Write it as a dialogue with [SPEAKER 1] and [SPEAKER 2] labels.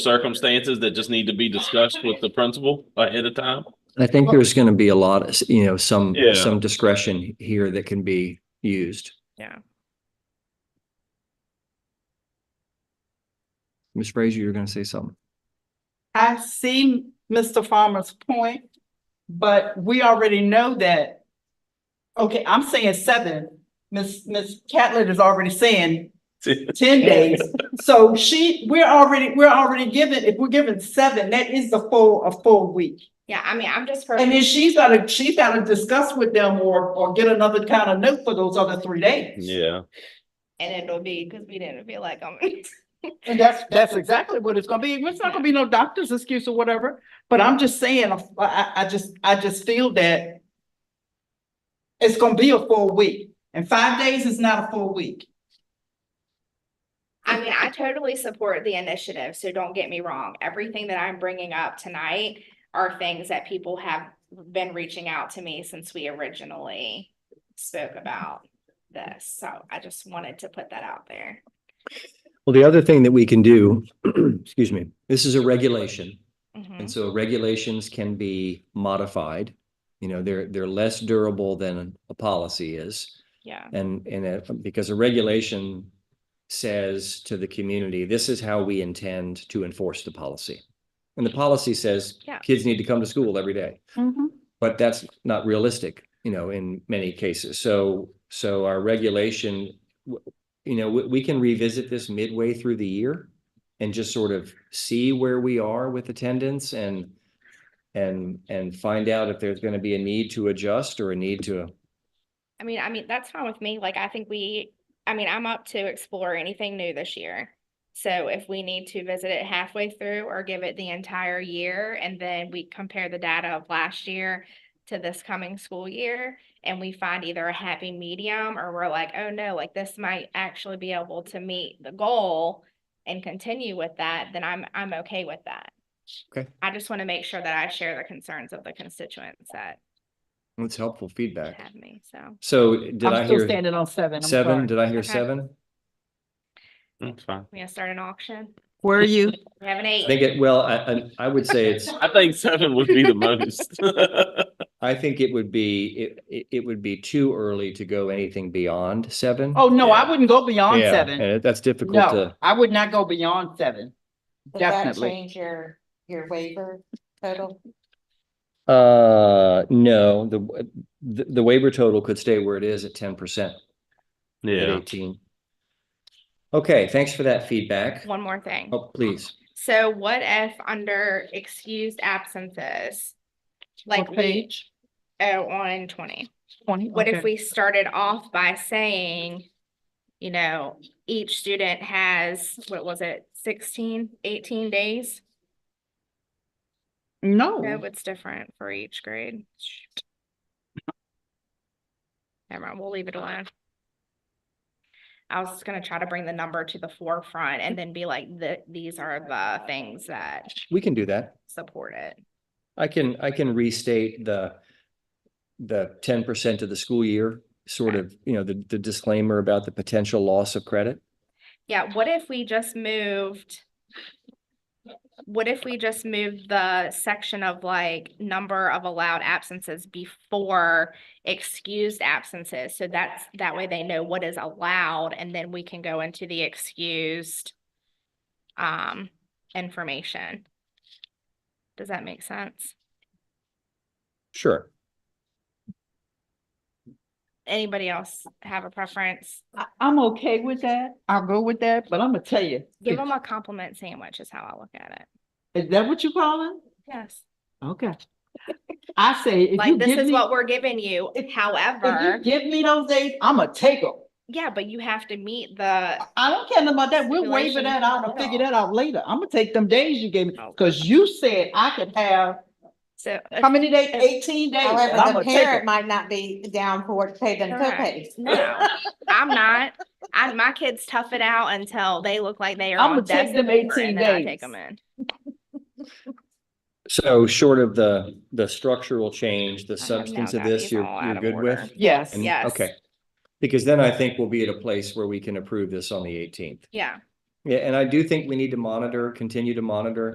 [SPEAKER 1] circumstances that just need to be discussed with the principal ahead of time?
[SPEAKER 2] I think there's going to be a lot, of you know, some,
[SPEAKER 1] Yeah.
[SPEAKER 2] some discretion here that can be used.
[SPEAKER 3] Yeah.
[SPEAKER 2] Ms. Frazier, you're going to say something.
[SPEAKER 4] I see Mr. Farmer's point, but we already know that. Okay, I'm saying seven. Miss Ms. Catlett is already saying ten days. So she, we're already, we're already given, if we're given seven, that is the full, a full week.
[SPEAKER 3] Yeah, I mean, I'm just. for-
[SPEAKER 4] And then she's gotta, she's gotta discuss with them or, or get another kind of note for those other three days.
[SPEAKER 1] Yeah,
[SPEAKER 3] And it'll be, cause we didn't feel like I'm.
[SPEAKER 4] And that's, that's exactly what it's gonna be. It's not gonna be no doctor's excuse or whatever, but I'm just saying, I, I, I just, I just feel that it's gonna be a full week, and five days is not a full week.
[SPEAKER 3] I mean, I totally support the initiative, so don't get me wrong. Everything that I'm bringing up tonight are things that people have been reaching out to me since we originally spoke about this, so I just wanted to put that out there.
[SPEAKER 2] Well, the other thing that we can do, excuse me, this is a regulation.
[SPEAKER 3] Mhm.
[SPEAKER 2] And so regulations can be modified. You know, they're, they're less durable than a policy is.
[SPEAKER 3] Yeah,
[SPEAKER 2] And, and it- because a regulation says to the community, this is how we intend to enforce the policy. And the policy says,
[SPEAKER 3] Yeah.
[SPEAKER 2] kids need to come to school every day. But that's not realistic, you know, in many cases. So, so our regulation, w- you know, we, we can revisit this midway through the year and just sort of see where we are with attendance and, and, and find out if there's going to be a need to adjust or a need to
[SPEAKER 3] I mean, I mean, that's fine with me, like, I think we, I mean, I'm up to explore anything new this year. So if we need to visit it halfway through or give it the entire year, and then we compare the data of last year to this coming school year, and we find either a happy medium, or we're like, oh no, like, this might actually be able to meet the goal and continue with that, then I'm, I'm okay with that.
[SPEAKER 2] Okay.
[SPEAKER 3] I just want to make sure that I share the concerns of the constituents that
[SPEAKER 2] That's helpful feedback.
[SPEAKER 3] have me, so.
[SPEAKER 2] So did I
[SPEAKER 4] I'm still
[SPEAKER 2] hear
[SPEAKER 4] standing on seven, I'm
[SPEAKER 2] seven?
[SPEAKER 4] sorry.
[SPEAKER 2] Did I hear
[SPEAKER 3] Okay.
[SPEAKER 2] seven?
[SPEAKER 1] that's fine.
[SPEAKER 3] We're gonna start an auction.
[SPEAKER 5] Where are you?
[SPEAKER 3] We have an
[SPEAKER 2] I
[SPEAKER 3] eight.
[SPEAKER 2] think it, well, I, I, I would say it's,
[SPEAKER 1] I think seven would be the most.
[SPEAKER 2] I think it would be, it- it, it would be too early to go anything beyond seven.
[SPEAKER 4] Oh, no, I wouldn't go beyond
[SPEAKER 2] Yeah,
[SPEAKER 4] seven.
[SPEAKER 2] And that's difficult
[SPEAKER 4] No,
[SPEAKER 2] to,
[SPEAKER 4] I would not go beyond seven.
[SPEAKER 6] Does that
[SPEAKER 4] Definitely.
[SPEAKER 6] Change your, your waiver total?
[SPEAKER 2] uh, no, the, the, the waiver total could stay where it is at ten percent at
[SPEAKER 1] Yeah,
[SPEAKER 2] eighteen. Okay, thanks for that feedback.
[SPEAKER 3] One more thing.
[SPEAKER 2] Oh, please.
[SPEAKER 3] So what if under excused absences? Like we,
[SPEAKER 4] What page?
[SPEAKER 3] oh, on twenty,
[SPEAKER 4] Twenty.
[SPEAKER 3] what
[SPEAKER 4] okay.
[SPEAKER 3] if we started off by saying, you know, each student has, what was it, 16, 18 days? No,
[SPEAKER 4] No,
[SPEAKER 3] it's different for each grade. Shoot. Never mind, we'll leave it alone. I was just gonna try to bring the number to the forefront and then be like, the, these are the things that
[SPEAKER 2] We can do that.
[SPEAKER 3] support it.
[SPEAKER 2] I can, I can restate the, the ten percent of the school year, sort of, you know, the, the disclaimer about the potential loss of credit.
[SPEAKER 3] Yeah, what if we just moved? What if we just moved the section of like number of allowed absences before excused absences? So that's, that way they know what is allowed and then we can go into the excused um, information. Does that make sense?
[SPEAKER 2] Sure.
[SPEAKER 3] Anybody else have a preference?
[SPEAKER 4] I, I'm okay with that. I'll go with that, but I'm gonna tell you.
[SPEAKER 3] Give them a compliment sandwich is how I look at it.
[SPEAKER 4] Is that what you calling?
[SPEAKER 3] Yes.
[SPEAKER 4] Okay. I say, if you
[SPEAKER 3] Like, this
[SPEAKER 4] give
[SPEAKER 3] is
[SPEAKER 4] me,
[SPEAKER 3] what we're giving you, however.
[SPEAKER 4] if you give me those days, I'm gonna take them.
[SPEAKER 3] Yeah, but you have to meet the,
[SPEAKER 4] I don't care nothing about that. We'll waiver
[SPEAKER 3] Stipulation.
[SPEAKER 4] that out and figure that out later. I'm gonna take them days you gave me,
[SPEAKER 3] Okay.
[SPEAKER 4] cause you said I could have,
[SPEAKER 3] so, uh,
[SPEAKER 4] how many days? Eighteen days. and I'm
[SPEAKER 6] However, the
[SPEAKER 4] gonna take
[SPEAKER 6] parent
[SPEAKER 4] 'em.
[SPEAKER 6] might not be down for it to pay them
[SPEAKER 3] Correct.
[SPEAKER 6] co-pays.
[SPEAKER 3] no, I'm not. I, my kids tough it out until they look like they are
[SPEAKER 4] I'ma
[SPEAKER 3] on death's
[SPEAKER 4] take them
[SPEAKER 3] door,
[SPEAKER 4] 18
[SPEAKER 3] and then I
[SPEAKER 4] days.
[SPEAKER 3] Take them in.
[SPEAKER 2] So short of the, the structural change, the
[SPEAKER 3] have now
[SPEAKER 2] substance of
[SPEAKER 3] got
[SPEAKER 2] this,
[SPEAKER 3] these
[SPEAKER 2] you're,
[SPEAKER 3] all out
[SPEAKER 2] you're
[SPEAKER 3] of
[SPEAKER 2] good
[SPEAKER 3] order.
[SPEAKER 2] with?
[SPEAKER 4] Yes,
[SPEAKER 2] And-
[SPEAKER 3] Yes.
[SPEAKER 2] Okay. Because then I think we'll be at a place where we can approve this on the eighteenth.
[SPEAKER 3] Yeah,
[SPEAKER 2] Yeah, and I do think we need to monitor, continue to monitor